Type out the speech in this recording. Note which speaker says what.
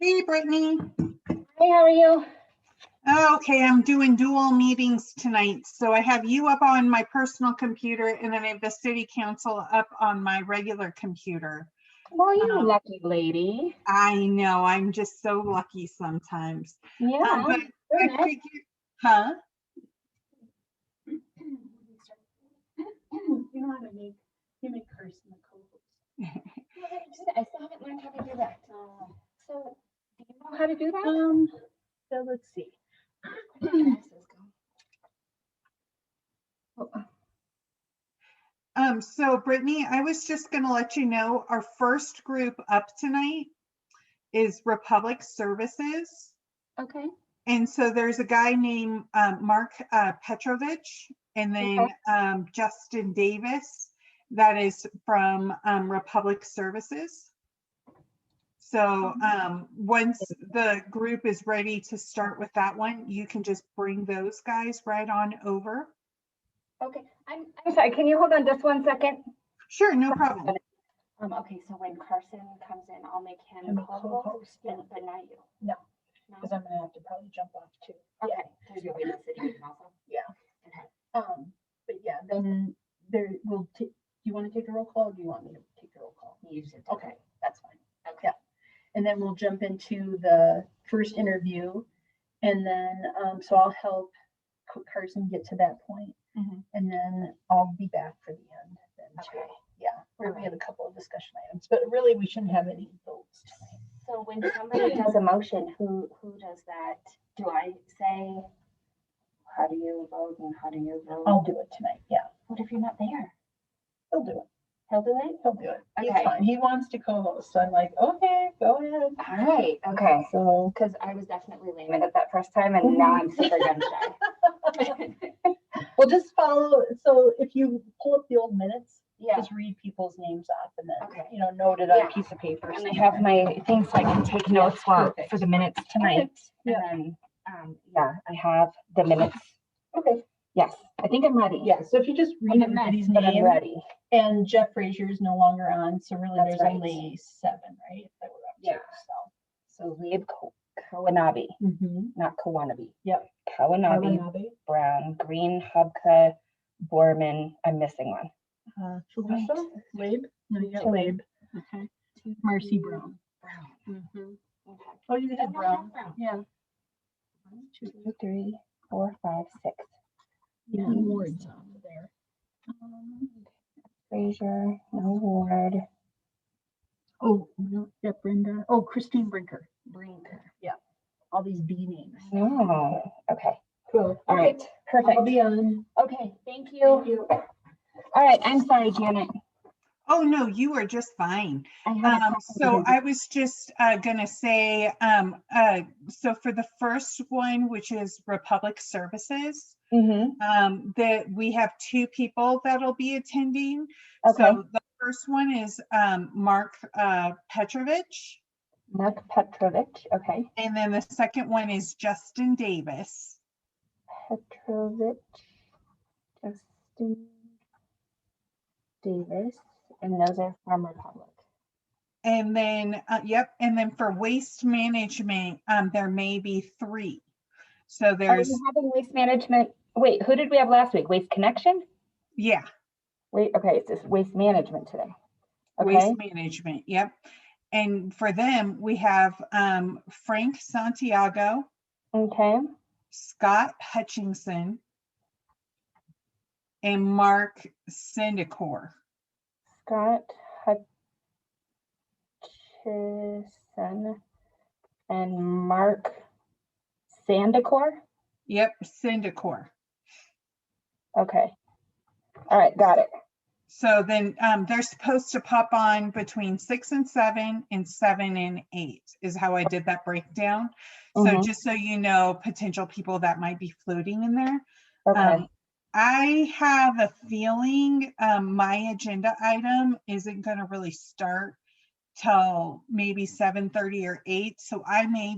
Speaker 1: Hey, Brittany.
Speaker 2: Hey, how are you?
Speaker 1: Okay, I'm doing dual meetings tonight, so I have you up on my personal computer and then I have the city council up on my regular computer.
Speaker 2: Well, you
Speaker 1: Um,
Speaker 2: lucky lady.
Speaker 1: I know, I'm just so lucky sometimes. Um,
Speaker 2: Yeah.
Speaker 1: but I
Speaker 2: nice.
Speaker 1: figure- Huh?
Speaker 3: You know how to make, you make curse in the co-host.
Speaker 2: I still haven't learned how to do that. So, do you know how to do that?
Speaker 3: Um, so let's see.
Speaker 1: Um, so Brittany, I was just gonna let you know, our first group up tonight is Republic Services.
Speaker 2: Okay.
Speaker 1: And so there's a guy named um, Mark uh, Petrovich and then
Speaker 2: Okay.
Speaker 1: um, Justin Davis that is from um, Republic Services. So
Speaker 2: Mm-hmm.
Speaker 1: um, once the group is ready to start with that one, you can just bring those guys right on over.
Speaker 2: Okay. I'm, I'm sorry. Can you hold on just one second?
Speaker 1: Sure, no problem.
Speaker 2: Um, okay. So when Carson comes in, I'll make him
Speaker 4: I'm a
Speaker 2: callable,
Speaker 4: co-host, yeah,
Speaker 2: and but not you.
Speaker 4: No.
Speaker 2: No?
Speaker 4: because I'm gonna have to probably jump off too.
Speaker 2: Okay. There's nobody in the city meeting also.
Speaker 4: Um, but yeah, then there will, ta- do you want to take a roll call or do you want me to take a roll call?
Speaker 2: You just did.
Speaker 4: Okay, that's fine.
Speaker 2: Okay.
Speaker 4: And then we'll jump into the first interview. And then, um, so I'll help Co- Carson get to that point,
Speaker 1: Mhm.
Speaker 4: And then I'll be back for the end then too.
Speaker 2: Okay.
Speaker 4: Yeah, where we have a couple of discussion items, but really we shouldn't have any votes tonight.
Speaker 2: So when somebody does a motion, who, who does that? Do I say, how do you vote and how do you vote?
Speaker 4: I'll do it tonight. Yeah,
Speaker 2: What if you're not there?
Speaker 4: he'll do it.
Speaker 2: He'll do it?
Speaker 4: He'll do it. He's
Speaker 2: Okay.
Speaker 4: fine. He wants to co-host. So I'm like, okay, go ahead.
Speaker 2: All right, okay.
Speaker 4: So,
Speaker 2: Because I was definitely lame at it that first time and now I'm super gun shy.
Speaker 4: we'll just follow, so if you pull up the old minutes,
Speaker 2: Yeah,
Speaker 4: just read people's names off and then,
Speaker 2: Okay.
Speaker 4: you know, note it on
Speaker 2: Yeah.
Speaker 4: a piece of paper.
Speaker 2: and I have my things so I can take notes while, for the minutes tonight. And
Speaker 4: Yeah.
Speaker 2: then, um, yeah, I have the minutes.
Speaker 4: Okay.
Speaker 2: Yes, I think I'm ready.
Speaker 4: Yeah, so if you just read
Speaker 2: I'm a mess,
Speaker 4: everybody's
Speaker 2: but I'm
Speaker 4: name,
Speaker 2: ready.
Speaker 4: and Jeff Frazier is no longer on, so really
Speaker 2: That's
Speaker 4: there's
Speaker 2: right.
Speaker 4: only seven, right? that we're up to,
Speaker 2: Yeah. So Leib Ko- Kawanabe,
Speaker 4: So. Mhm.
Speaker 2: not Kawanabe.
Speaker 4: Yep.
Speaker 2: Kawanabe,
Speaker 4: Watanabe,
Speaker 2: Brown, Green, Hubka, Borman. I'm missing one.
Speaker 4: uh, Felicia, Labe, no, you got Labe,
Speaker 2: Labe.
Speaker 1: Okay.
Speaker 4: Marcy Brown.
Speaker 2: Brown. Okay.
Speaker 4: Oh, you had
Speaker 2: No, no, I have
Speaker 4: Brown,
Speaker 2: Brown.
Speaker 4: yeah.
Speaker 2: One, two, three, four, five, six.
Speaker 4: Yeah,
Speaker 2: Yeah.
Speaker 4: Ward's on there. Um,
Speaker 2: Frazier, no Ward.
Speaker 4: Oh, no, yeah, Brenda, oh, Christine Brinker,
Speaker 2: Brinker.
Speaker 4: all these B names.
Speaker 2: No. Okay.
Speaker 4: Cool.
Speaker 2: All right. Perfect.
Speaker 4: I'll be on.
Speaker 2: Okay. Thank you. All right. I'm sorry, Janet.
Speaker 1: Oh, no, you are just fine.
Speaker 2: I had a
Speaker 1: Um,
Speaker 2: second
Speaker 1: so
Speaker 2: to do-
Speaker 1: I was just uh, gonna say, um, uh, so for the first one, which is Republic Services,
Speaker 2: Mhm.
Speaker 1: um, that we have two people that'll be attending.
Speaker 2: Okay.
Speaker 1: So the first one is um, Mark uh, Petrovich,
Speaker 2: Mark Petrovich. Okay.
Speaker 1: and then the second one is Justin Davis.
Speaker 2: Petrovich, Justin Davis, and those are from Republic.
Speaker 1: And then, uh, yep, and then for waste management, um, there may be three. So
Speaker 2: Are
Speaker 1: there's,
Speaker 2: we having waste management? Wait, who did we have last week? Waste Connection?
Speaker 1: yeah,
Speaker 2: Wait, okay, it's just waste management today. Okay,
Speaker 1: waste management, yep. And for them, we have um, Frank Santiago,
Speaker 2: okay,
Speaker 1: Scott Hutchinson, and Mark Sendicor.
Speaker 2: Scott Hutchison and Mark Sandacor?
Speaker 1: Yep, Sendicor.
Speaker 2: Okay. All right, got it.
Speaker 1: So then um, they're supposed to pop on between six and seven and seven and eight is how I did that breakdown. So
Speaker 2: Mhm.
Speaker 1: just so you know, potential people that might be floating in there.
Speaker 2: Okay,
Speaker 1: Um, I have a feeling um, my agenda item isn't going to really start till maybe 7:30 or 8. So I may